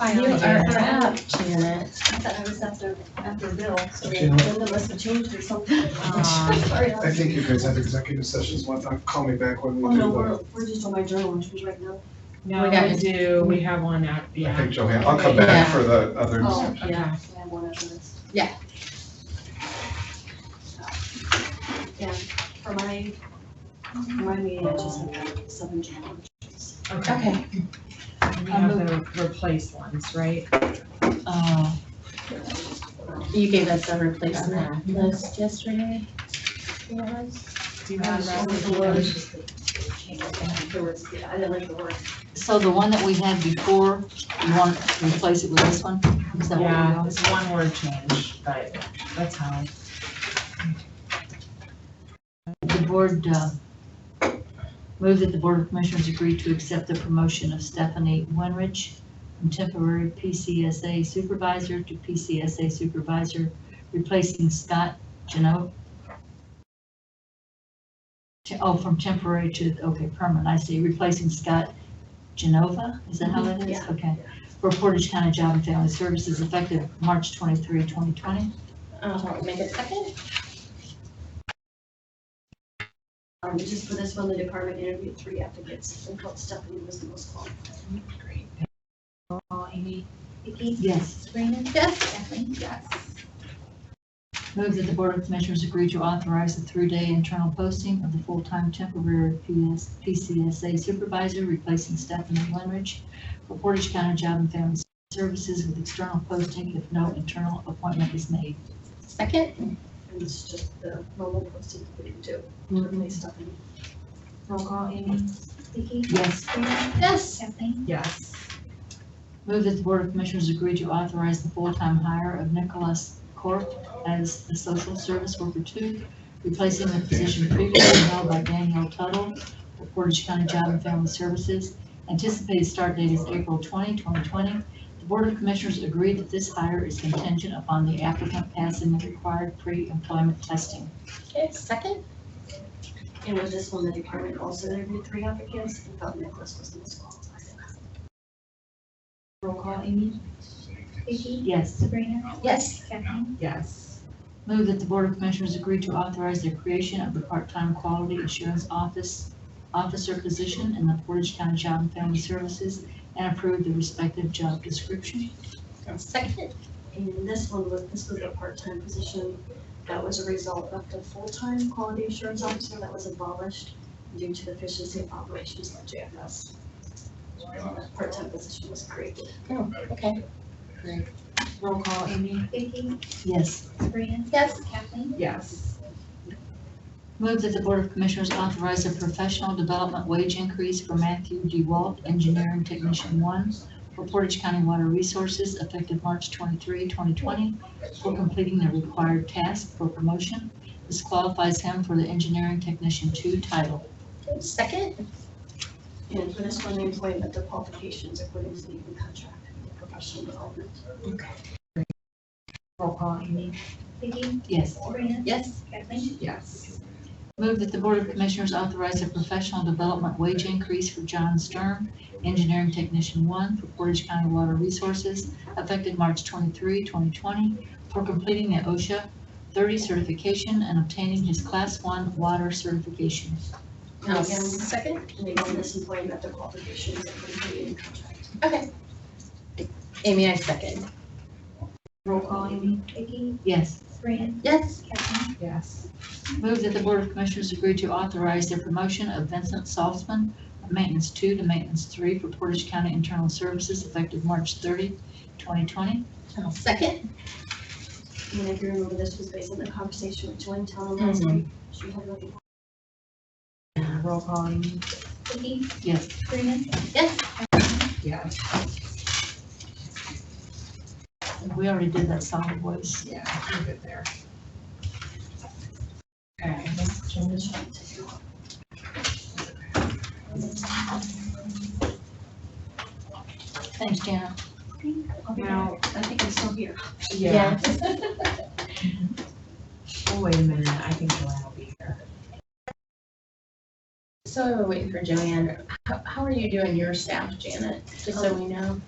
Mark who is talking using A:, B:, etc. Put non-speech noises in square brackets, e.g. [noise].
A: Finally,
B: You are
A: Janet.
B: up, Janet.
A: I thought I was after, after Bill, so
C: Okay.
A: then they must have changed or something.
B: [laughs] Aw.
A: [laughs] Sorry, I
C: I
A: was-
C: think you guys have executive sessions, one time, call me back when
A: Oh,
C: we
A: no,
C: do
A: we're,
C: the,
A: we're just on my journal entries right now.
D: No,
B: We got
D: we do, we have one out,
C: I
D: yeah,
C: think Joanne, I'll come back for the others.
A: Oh, okay.
B: Yeah.
A: I have one after this.
B: Yeah.
A: Yeah, for my, for my meeting, I just have seven journal entries.
D: okay.
B: Okay.
D: We have the replace ones, right?
B: Oh. You gave us a replacement list yesterday. Yes.
D: Do you have that?
A: There was, yeah, I didn't like the word.
E: So the one that we had before, you want to replace it with this one? Is that what we
D: Yeah,
E: want?
D: it's one word change, but that's how.
E: The board, uh, move that the Board of Commissioners agree to accept the promotion of Stephanie Winrich from temporary PCSA supervisor to PCSA supervisor, replacing Scott Geno. Te- Oh, from temporary to, okay, permanent, I see, replacing Scott Genova, is that how that is?
A: Yeah.
E: Okay. For Portage County Job and Family Services effective March 23, 2020.
B: Uh, make a second?
A: Um, just for this one, the department interviewed three applicants and felt Stephanie was the most qualified.
F: Call Amy, Vicky,
E: Yes.
F: Sabrina. Yes. Kathleen. Yes.
E: Move that the Board of Commissioners agree to authorize a three-day internal posting of the full-time temporary PS, PCSA supervisor replacing Stephanie Winrich for Portage County Job and Family Services with external posting if no internal appointment is made.
B: Second?
A: And it's just the normal posted that we do,
E: Mm,
A: really Stephanie.
F: Roll call Amy, Vicky,
E: Yes.
F: Sabrina,
B: Yes.
F: Kathleen.
D: Yes.
E: Move that the Board of Commissioners agree to authorize the full-time hire of Nicholas Corp as the social service worker two, replacing the position previously held by Danielle Tuttle for Portage County Job and Family Services. Anticipated start date is April 20, 2020. The Board of Commissioners agree that this hire is contingent upon the applicant passing the required pre-employment testing.
B: Okay, second?
A: And with this one, the department also interviewed three applicants and felt Nicholas was the most qualified.
F: Roll call Amy, Vicky,
E: Yes.
F: Sabrina,
B: Yes.
F: Kathleen.
D: Yes.
E: Move that the Board of Commissioners agree to authorize the creation of the part-time quality assurance office, officer position in the Portage County Job and Family Services and approve the respective job description.
B: Second?
A: And this one was, this was a part-time position that was a result of the full-time quality assurance officer that was abolished due to the efficiency of operations at JFS. So that Part-time position was created.
B: Okay.
F: Roll call Amy, Vicky,
E: Yes.
F: Sabrina.
B: Yes.
F: Kathleen.
D: Yes.
E: Move that the Board of Commissioners authorize a professional development wage increase for Matthew DeWalt, Engineering Technician One, for Portage County Water Resources effective March 23, 2020, for completing the required task for promotion. This qualifies him for the Engineering Technician Two title.
B: Second?
A: And for this one, the employment, the qualifications according to the union contract, and professional development.
F: Roll call Amy, Vicky,
E: Yes.
F: Sabrina,
B: Yes.
F: Kathleen.
D: Yes.
E: Move that the Board of Commissioners authorize a professional development wage increase for John Stern, Engineering Technician One for Portage County Water Resources, effective March 23, 2020, for completing the OSHA 30 certification and obtaining his Class One water certification.
A: And
B: Uh,
A: again,
B: Second?
A: and again, this employment, the qualifications according to the union contract.
B: Okay. Amy, I second.
F: Roll call Amy, Vicky,
E: Yes.
F: Sabrina,
B: Yes.
F: Kathleen.
D: Yes.
E: Move that the Board of Commissioners agree to authorize the promotion of Vincent Saltzman from Maintenance Two to Maintenance Three for Portage County Internal Services, effective March 30, 2020.
B: Uh, Second?
A: And if you remember, this was based on the conversation with Joanne Town last
B: Mhm.
A: week. She had really
D: Roll call Amy,
F: Vicky,
E: Yes.
F: Sabrina,
B: Yes.
D: yes.
E: We already did that solid waste.
D: Yeah, leave it there. Okay, let's change.
E: Thanks, Janet.
A: I'll be
D: Now-
A: back. I think I'm still [laughs] here.
D: Yeah. Oh, wait a minute, I think Joanne will be here.
B: So we're waiting for Joanne. How, how are you doing your staff, Janet? Just so we know.